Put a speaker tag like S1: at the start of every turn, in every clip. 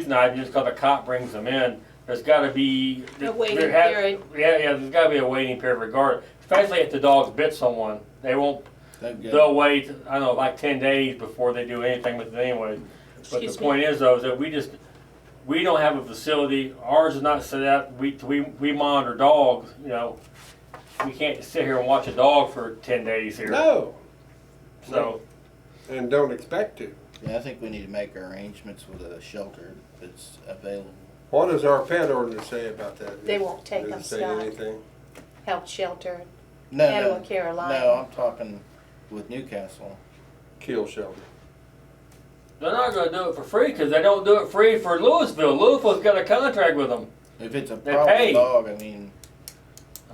S1: euthanized just 'cause a cop brings them in. There's gotta be.
S2: A waiting
S1: there has-
S2: period.
S1: Yeah, yeah, there's gotta be a waiting period regardless, especially if the dog's bit someone. They won't,
S3: They've got-
S1: they'll wait, I don't know, like ten days before they do anything with it anyway. But the
S2: Excuse me.
S1: point is though, is that we just, we don't have a facility, ours is not set up, we, we, we monitor dogs, you know. We can't sit here and watch a dog for ten days here,
S4: No,
S1: so.
S4: and don't expect to.
S3: Yeah, I think we need to make our arrangements with a shelter that's available.
S4: What does our pet ordinance say about that?
S2: They won't take
S4: Does
S2: them,
S4: it say
S2: Scott.
S4: anything?
S2: Health shelter,
S3: No,
S2: Animal
S3: no,
S2: care line.
S3: No, I'm talking with Newcastle.
S4: Kill shelter.
S1: They're not gonna do it for free, cause they don't do it free for Louisville. Louisville's got a contract with them.
S3: If it's a
S1: They
S3: problem
S1: pay.
S3: dog, I mean,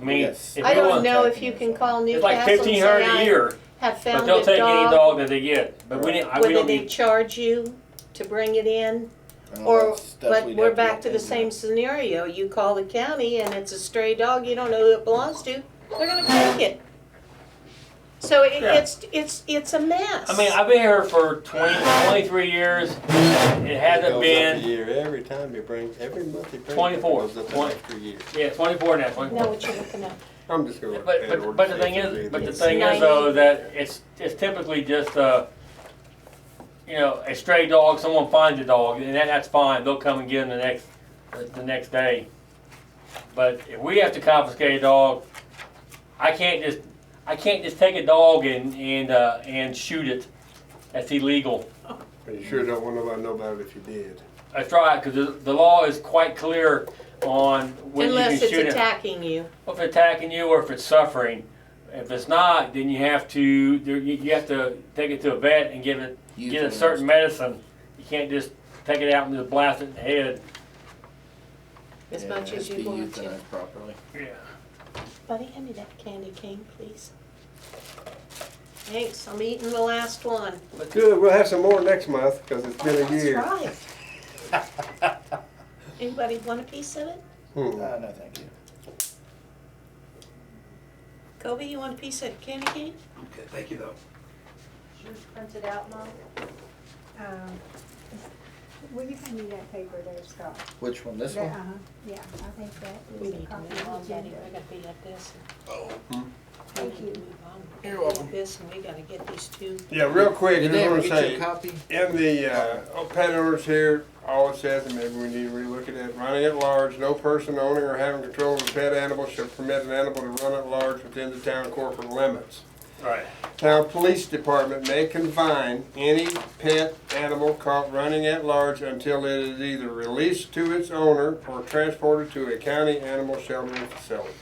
S1: I mean,
S3: Yes.
S1: if
S2: I
S1: you
S2: don't
S1: want-
S2: know if
S3: checking
S2: you
S3: or
S2: can
S3: something.
S2: call
S1: It's like
S2: Newcastle and
S1: fifteen hundred a
S2: say,
S1: year,
S2: I have
S1: but
S2: found
S1: they'll
S2: a
S1: take any
S2: dog,
S1: dog that they get. But we didn't. I- We
S2: whether
S1: don't
S2: they
S1: need.
S2: charge you to bring it in,
S3: and all
S2: or,
S3: that stuff
S2: but
S3: we'd
S2: we're
S3: have
S2: back
S3: look
S2: to the
S3: into.
S2: same scenario, you call the county and it's a stray dog, you don't know who it belongs to, they're gonna take it. So it,
S1: Yeah.
S2: it's, it's, it's a mess.
S1: I mean, I've been here for 20, 23 years. It
S4: It goes
S1: hasn't
S4: up a
S1: been.
S4: year, every time you bring, every month you bring. it, it
S1: 24,
S4: goes up an
S1: 20.
S4: extra year.
S1: Yeah, twenty-four now. 24.
S2: Know what you're looking at.
S4: I'm just gonna.
S1: But
S4: let pet
S1: but but the
S4: ordinance
S1: thing
S4: say if
S1: is,
S4: it
S1: but the
S4: is.
S1: thing is though that it's it's typically just uh, you know, a stray dog. Someone finds a dog, and that, that's fine. They'll come and get him the next the next day. But if we have to confiscate a dog, I can't just I can't just take a dog and and uh, and shoot it. That's illegal.
S4: You sure don't want nobody to know about it if you did.
S1: That's right, because the, the law is quite clear on when you
S2: Unless
S1: can
S2: it's
S1: shoot it.
S2: attacking you,
S1: If it's attacking you or if it's suffering. If it's not, then you have to there, you, you have to take it to a vet and give it get it
S3: Euthanized.
S1: certain medicine. You can't just take it out and just blast it in the head.
S2: as
S3: Yeah,
S2: much
S3: it
S2: as
S3: has to
S2: you
S3: be
S2: want to.
S3: euthanized Properly.
S1: Yeah.
S2: Buddy, hand me that candy cane, please. Thanks, I'm eating the last one.
S4: Good, we'll have some more next month, cause it's been a
S2: That's
S4: year.
S2: right. Anybody want a piece of it?
S4: Hmm.
S3: Ah, no, thank you.
S2: Kobe, you want a piece of candy cane?
S5: Okay, thank you though.
S6: Yours printed out, Mom?
S7: Um, Will you hand me that paper there, Scott?
S3: Which one? This one?
S7: That- uh-huh, Yeah, I think that
S2: We
S7: is a
S2: need to
S7: copy
S2: move on,
S7: of the
S2: Betty,
S7: agenda.
S2: we gotta be at this.
S5: Oh. Hmm.
S2: We
S7: Thank
S2: need to
S7: you.
S2: move on.
S5: You're welcome.
S2: This, and we gotta get these two.
S4: Yeah, real quick,
S3: Did
S4: just
S3: they ever
S4: wanna
S3: get you
S4: say,
S3: a copy?
S4: in the, uh, oh, pet orders here, all it says, and maybe we need to relook at it, running at large, no person owning or having control of a pet animal shall permit an animal to run at large within the town corporate limits.
S1: Right.
S4: Town Police Department may confine any pet animal caught running at large until it is either released to its owner or transported to a county animal sheltering facility.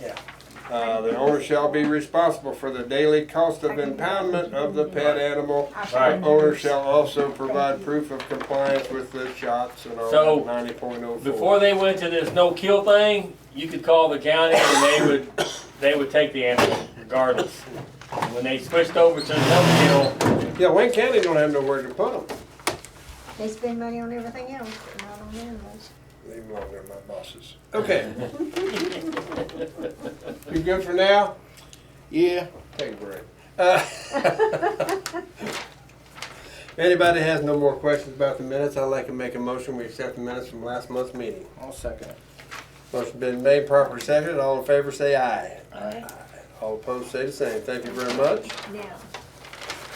S1: Yeah.
S4: Uh, the owner shall be responsible for the daily cost of impoundment of the pet animal.
S1: Right.
S4: The Owner shall also provide proof of compliance with the shots and all
S1: So,
S4: that ninety point oh
S1: Before
S4: four.
S1: they went to this no kill thing, you could call the county and they would they would take the animal regardless. When they switched over to no kill,
S4: Yeah, Wayne County don't have nowhere to put them.
S7: They spend money on everything else, but not on animals.
S4: Leave them alone, they're my bosses. Okay. You good for now?
S3: Yeah.
S4: Take a break. Uh, Anybody has no more questions about the minutes, I'd like to make a motion, we accept the minutes from last month's meeting.
S3: I'll second it.
S4: Motion been made, properly seconded, all in favor say aye.
S3: Aye.
S4: All opposed say the same, thank you very much.
S7: Now,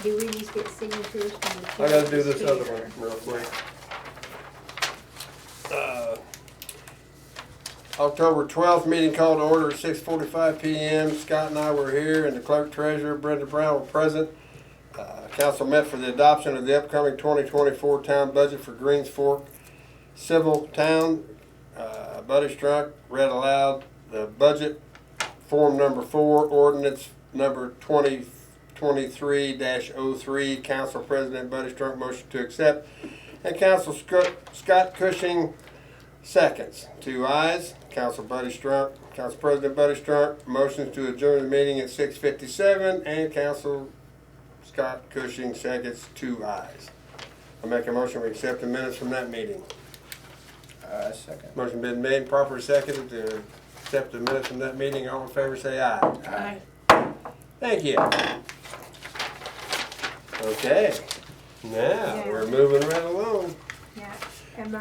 S7: do we need to get signatures from the?
S4: I gotta do this
S7: chair?
S4: other one real quick. Uh, October twelfth, meeting called to order at six forty-five PM. Scott and I were here and the clerk treasurer Brenda Brown were present. Uh, Council met for the adoption of the upcoming twenty twenty-four town budget for Greens Fork Civil Town. Uh, Buddy Strunk read aloud the budget form number four, ordinance number twenty twenty-three 3 Council President Buddy Strunk motion to accept. And Council Sc- Scott Cushing seconds. Two ayes. Council Buddy Strunk, Council President Buddy Strunk motions to adjourn the meeting at six fifty-seven. And Council Scott Cushing seconds, two ayes. I make a motion we accept the minutes from that meeting.
S3: I second.
S4: Motion been made, proper seconded to accept the minutes from that meeting. All in favor, say aye.
S2: Aye.
S4: Thank you. Okay, now, we're moving right along.
S7: Yeah,